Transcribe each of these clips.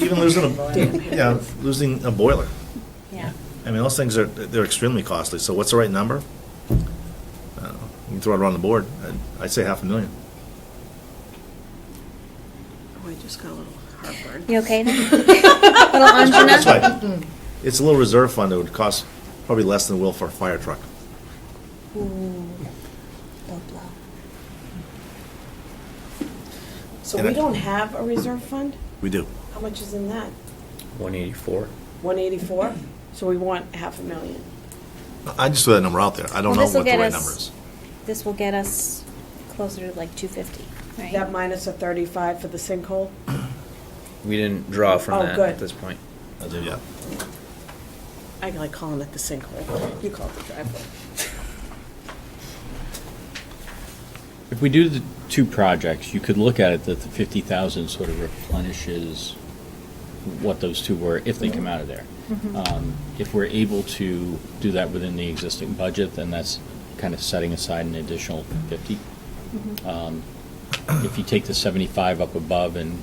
Even losing a, yeah, losing a boiler. Yeah. I mean, those things are, they're extremely costly, so what's the right number? I don't know. You can throw it around the board. I'd- I'd say half a million. Oh, I just got a little heartburn. You okay then? Little That's angina? why, it's a little reserve fund, it would cost probably less than it will for a fire truck. Ooh, Low blow. So And we I- don't have a reserve fund? We do. How much is in that? 184. One eighty-four? So we want half a million. I just threw that number out there. I don't Well, know what this'll the get right us- number is. This will get us closer to like two fifty, That right? minus a thirty-five for the sinkhole? We didn't draw from Oh, that good. at this point. I do, yeah. I like calling it the sinkhole. You call it the driveway. If we do the two projects, you could look at it that the fifty thousand sort of replenishes what those two were if they come out of there. Um, If we're able to do that within the existing budget, then that's kind of setting aside an additional fifty. Um, If you take the seventy-five up above and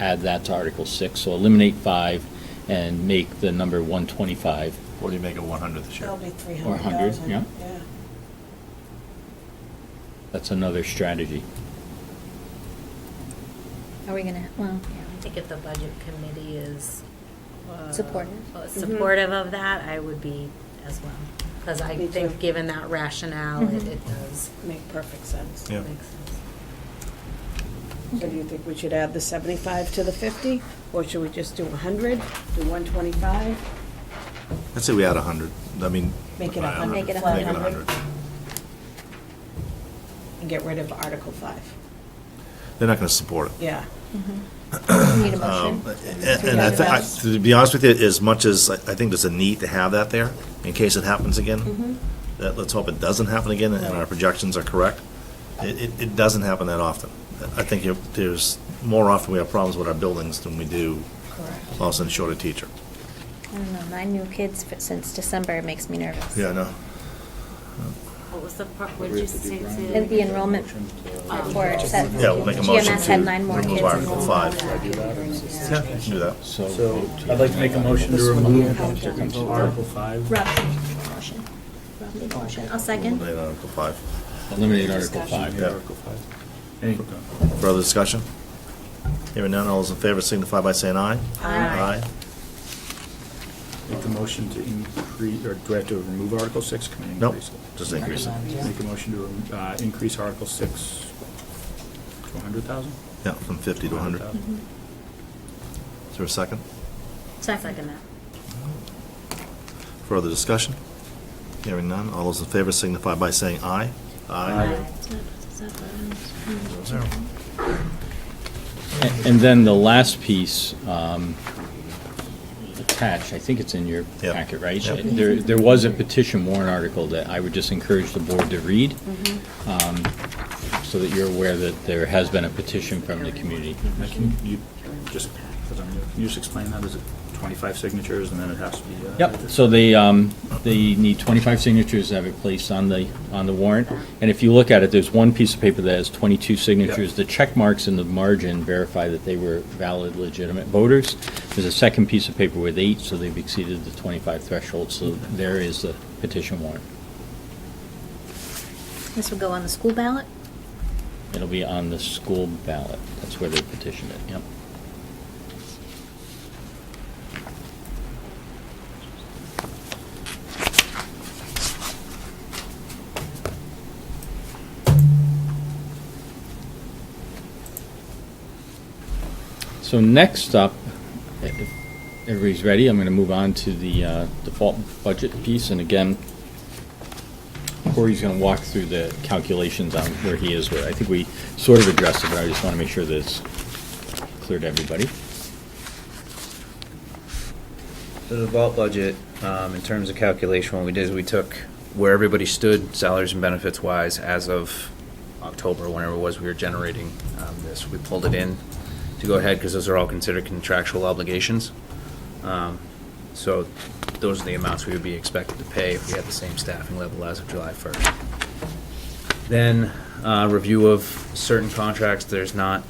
add that to Article six, so eliminate five and make the number one twenty-five, What do you make it one hundred this year? That'll be three Or hundred 100, thousand. yeah. Yeah. that's another strategy. Are we gonna, well, I think if the budget committee is. uh, Supportive. uh, Mm-hmm. Supportive of that, I would be as well. Because I Me too. Mm-hmm. think, given that rationale, it Mhm. it does Make perfect sense. Yeah. make sense. So do you think we should add the seventy-five to the fifty? Or should we just do a hundred, do one twenty-five? I'd say we add a hundred. I mean. Make it I a don't know. hundred. Make it a Make it a hundred. hundred. And get rid of Article five? They're not gonna support it. yeah. Yeah. Mm-hmm. Need a Um, motion. And and I, thi- I- to be honest with you, as much as I I think there's a need to have that there, in case it happens again, that, let's hope it doesn't happen again, and our projections are correct, it, it, it doesn't happen that often. I think if there's, more often we have problems with our buildings than we do Correct. all of a sudden short a teacher. I don't know, nine new kids f- since December it makes me nervous. Yeah, I know. What was the part, what did you say? Oh. to- um, And the enrollment report said Yeah, we'll make a motion GMS had to nine more remove kids Article enrolled. five. Yeah, we can do that. So I'd like to make a motion to remove Article Rob, 5. made the motion. Rob made the motion. I'll second. Eliminate Article five. eliminate Article five. Yeah. Any- Further discussion? Hearing none, all those in favor signify by saying aye. Aye. Aye. Make the motion to increase, or do I have to remove Article 6? Can I Nope, increase it? just increase it. Make a motion to rem- uh, increase Article 6 to 100,000? Yeah, from 50 to 100. Is there a second? Second that. Further discussion? Hearing none, all those in favor signify by saying aye. Zero. A- And then the last piece, um, attached, I think it's in your Yep. packet, right? Yep. There, there was a petition warrant article that I would just encourage the board to read, Mm-hmm. um, so that you're aware that there has been a petition from the community. Now, Can you, just, 'cause I'm new, can you just explain that? Is it 25 signatures and then it has to be? uh, Yep, so they, um, they need 25 signatures to have it placed on the, on the warrant. And if you look at it, there's one piece of paper that has 22 signatures. The check marks in the margin verify that they were valid, legitimate voters. There's a second piece of paper with eight, so they've exceeded the 25 threshold, so there is the petition warrant. This will go on the school ballot? It'll be on the school ballot, that's where they petitioned it, yep. So next up, if everybody's ready, I'm going to move on to the uh, default budget piece, and again, Corey's going to walk through the calculations on where he is with it. I think we sort of addressed it, but I just want to make sure that it's clear to everybody. So the vault budget, um, in terms of calculation, what we did is we took where everybody stood, salaries and benefits wise, as of October, whenever it was we were generating um, this. We pulled it in to go ahead because those are all considered contractual obligations. Um, So those are the amounts we would be expected to pay if we had the same staffing level as of July 1st. Then, uh, review of certain contracts, there's not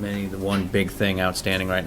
Many, the one big thing outstanding right now.